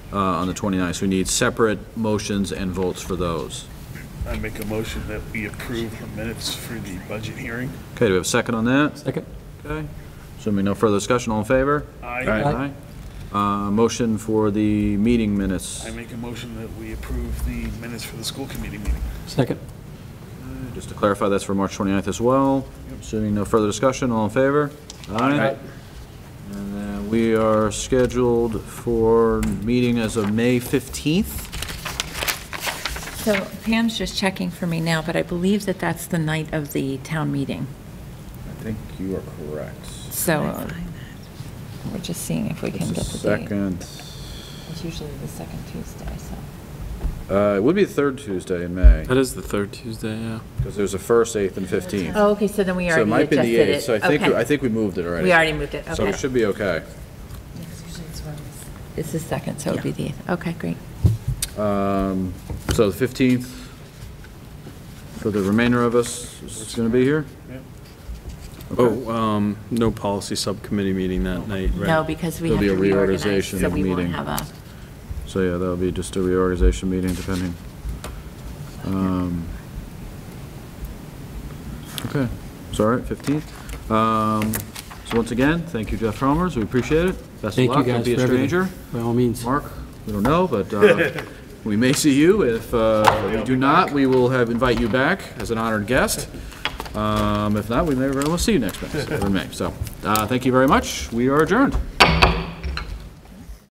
uh, on the 29th. So we need separate motions and votes for those. I make a motion that we approve the minutes for the budget hearing. Okay, do we have a second on that? Second. Okay. Assuming no further discussion, all in favor? I, Aye. Aye. Uh, Motion for the meeting minutes. I make a motion that we approve the minutes for the school committee meeting. Second. Just to clarify, that's for March 29th as well. Assuming no further discussion, all in favor? Aye. And then we are scheduled for meeting as of May 15th. So Pam's just checking for me now, but I believe that that's the night of the town meeting. I think you are correct. So we're just seeing if we can get It's the the date. second. It's usually the second Tuesday, so. Uh, It would be the third Tuesday in May, That is the third Tuesday, yeah. because there's a first, eighth, and 15th. Oh, okay, so then we So it already might be adjusted the it. eighth, so I think, Okay. I think we moved it already. We already moved it, So we okay. should be okay. It's the second, so it'd be the, eighth. okay, great. Um, So the 15th, for the remainder of us, is going to be here? Oh, um, no policy subcommittee meeting that night, right? No, because we have There'll to be a reorganize, reorganization so of we won't meeting. have a, So yeah, that'll be just a reorganization meeting, depending. Um, Okay, it's all right, 15th. Um, So once again, thank you, Jeff Romers, we appreciate it. Best of Thank you luck, don't guys be a for everything. stranger. By all means. Mark, we don't know, but uh, we may see you. If uh, we do not, we will have, invite you back as an honored guest. Um, If not, we may very well see you next May, so- or May. So, uh, thank you very much, we are adjourned.